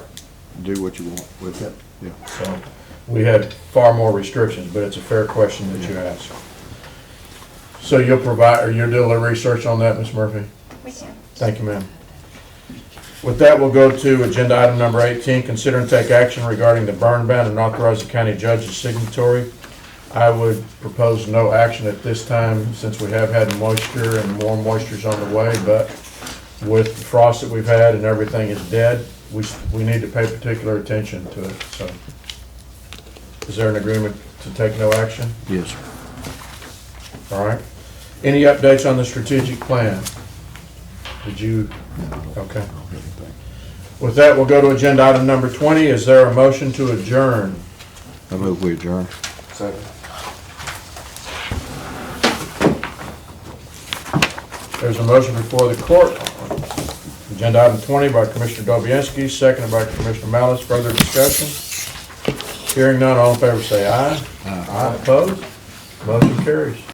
do what you want with it. Yeah. So we had far more restrictions, but it's a fair question that you asked. So you'll provide, or you'll do a little research on that, Ms. Murphy? We can. Thank you, ma'am. With that, we'll go to agenda item number 18, consider and take action regarding the burn ban and authorize the county judge as signatory. I would propose no action at this time since we have had moisture and more moisture's on the way, but with the frost that we've had and everything is dead, we, s- we need to pay particular attention to it, so. Is there an agreement to take no action? Yes, sir. All right. Any updates on the strategic plan? Did you, okay. With that, we'll go to agenda item number 20. Is there a motion to adjourn? I move we adjourn. There's a motion before the court. Agenda item 20 by Commissioner Dobianski, seconded by Commissioner Malice. Further discussion? Hearing none, all in favor say aye. Aye. Opposed? Motion carries.